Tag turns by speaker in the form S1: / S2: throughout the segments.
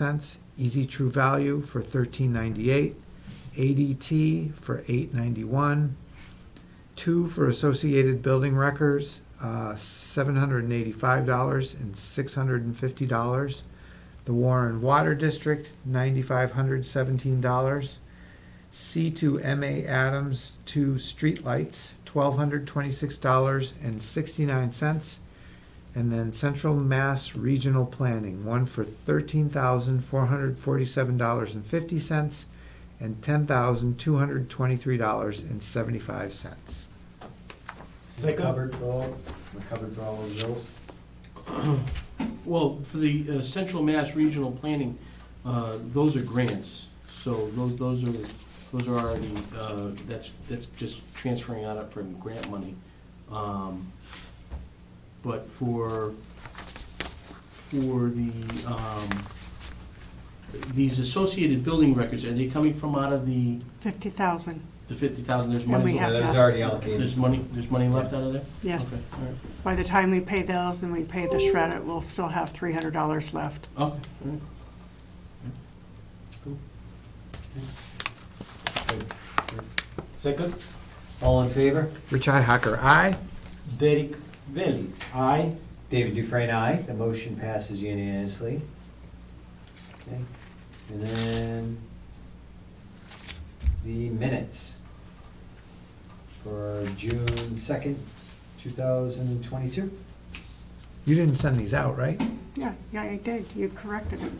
S1: cents, Easy True Value for thirteen ninety-eight, ADT for eight ninety-one, two for Associated Building Records, uh, seven hundred and eighty-five dollars and six hundred and fifty dollars. The Warren Water District, ninety-five hundred seventeen dollars. C two MA Adams to Streetlights, twelve hundred twenty-six dollars and sixty-nine cents. And then Central Mass Regional Planning, one for thirteen thousand four hundred forty-seven dollars and fifty cents and ten thousand two hundred twenty-three dollars and seventy-five cents.
S2: We're covered for all, we're covered for all those bills?
S3: Well, for the uh, Central Mass Regional Planning, uh, those are grants, so those, those are, those are already, uh, that's, that's just transferring out of from grant money. Um, But for, for the, um, these associated building records, are they coming from out of the,
S4: 50,000,
S3: the fifty thousand, there's
S4: And we
S3: money,
S4: have
S2: That is
S4: that.
S2: already allocated.
S3: there's money, there's money left out of there?
S4: yes.
S3: Okay, all right.
S4: By the time we pay those and we pay the shredder, we'll still have $300 left.
S3: Okay, all right. Cool.
S2: Second? All in favor?
S1: Rich Hacker, aye.
S2: Derek Bellis, aye. David Dufresne, aye. The motion passes unanimously. Okay, And then the minutes for June second, two thousand twenty-two.
S1: You didn't send these out, right?
S4: Yeah, yeah, I did, you corrected it.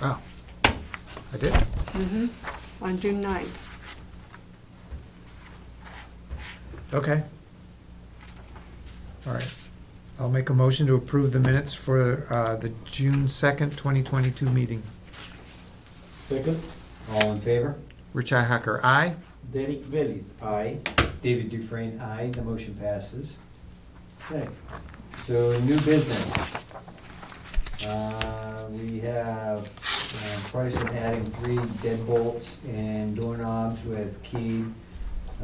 S1: Oh, I did.
S4: Mm-hmm. On June 9th.
S1: Okay. All right. I'll make a motion to approve the minutes for uh, the June second, twenty twenty-two meeting.
S2: Second. All in favor?
S1: Rich Hacker, aye.
S2: Derek Bellis, aye. David Dufresne, aye. The motion passes. Okay, so new business. Uh, We have uh, price of adding three deadbolts and doorknobs with key,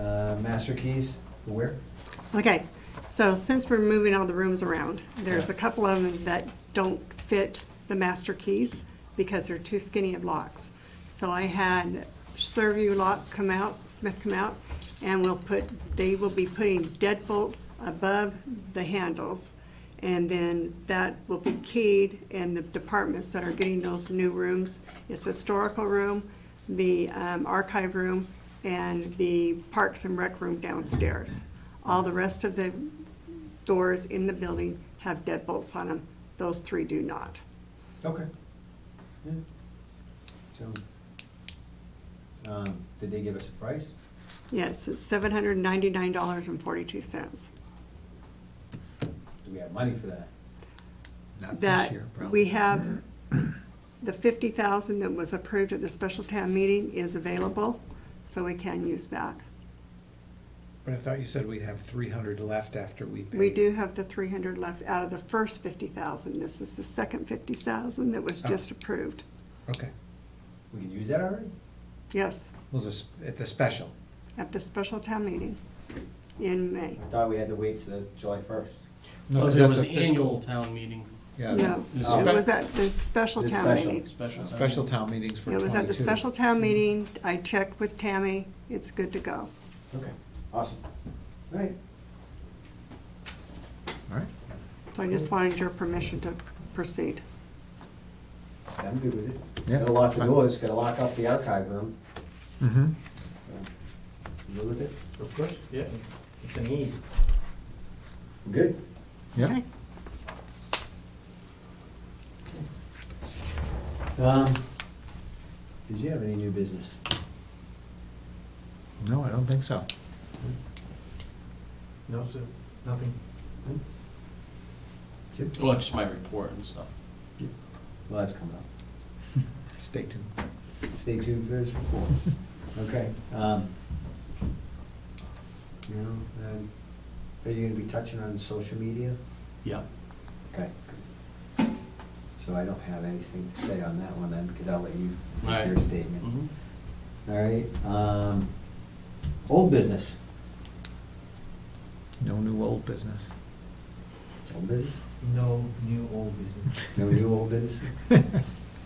S2: uh, master keys. Where?
S4: Okay, so since we're moving all the rooms around, there's a
S2: Yeah.
S4: couple of them that don't fit the master keys because they're too skinny of locks. So I had Survey Lock come out, Smith come out, and we'll put, they will be putting deadbolts above the handles. And then that will be keyed in the departments that are getting those new rooms. It's historical room, the um, archive room, and the parks and rec room downstairs. All the rest of the doors in the building have deadbolts on them. Those three do not.
S2: Okay. Yeah. So, um, did they give us a price?
S4: Yes, it's seven hundred and ninety-nine dollars and forty-two cents.
S2: Do we have money for that?
S1: Not this
S4: That
S1: year, probably.
S4: we have, the fifty thousand that was approved at the special town meeting is available, so we can use that.
S1: But I thought you said we'd have three hundred left after we pay.
S4: We do have the three hundred left out of the first fifty thousand. This is the second fifty thousand that was
S1: Oh.
S4: just approved.
S1: Okay.
S2: We can use that already?
S4: Yes,
S1: Was this at the special?
S3: Oh,
S4: at the special town meeting in May.
S2: I thought we had to wait till July first.
S3: Well,
S1: because
S3: Oh, there
S1: that's
S3: was
S1: a
S3: an
S1: fiscal-
S3: annual town meeting,
S1: Yeah.
S4: No,
S3: The
S2: Oh.
S4: it was at the special
S2: The
S4: town
S2: special.
S4: meeting.
S3: special. town
S1: Special
S3: meeting.
S1: town meetings for
S4: It
S1: twenty-two.
S4: was at the special town meeting, I checked with Tammy, it's good to go.
S2: Okay, awesome. All right.
S1: All right.
S4: So I just wanted your permission to proceed.
S2: I'm good with it.
S1: Yeah,
S2: Gotta lock the
S1: fine.
S2: doors, gotta lock up the archive room.
S1: Mm-hmm.
S2: so. You good with it?
S5: Of course, yeah, it's a need.
S2: Good.
S1: Yeah.
S4: Okay.
S2: Um, did you have any new business?
S1: No, I don't think so.
S5: No, sir, nothing.
S2: Hmm? Chip?
S3: Well, it's just my report and stuff.
S2: Well, that's coming up.
S1: Stay tuned.
S2: Stay tuned for his report. Okay, um, you know, um, are you gonna be touching on social media?
S3: Yeah.
S2: Okay. So I don't have anything to say on that one then, because I'll let you make your
S3: Right.
S2: statement.
S3: Mhm.
S2: All right, um, old business.
S1: No new old business.
S2: Old business?
S5: No new old business.
S2: No new old business?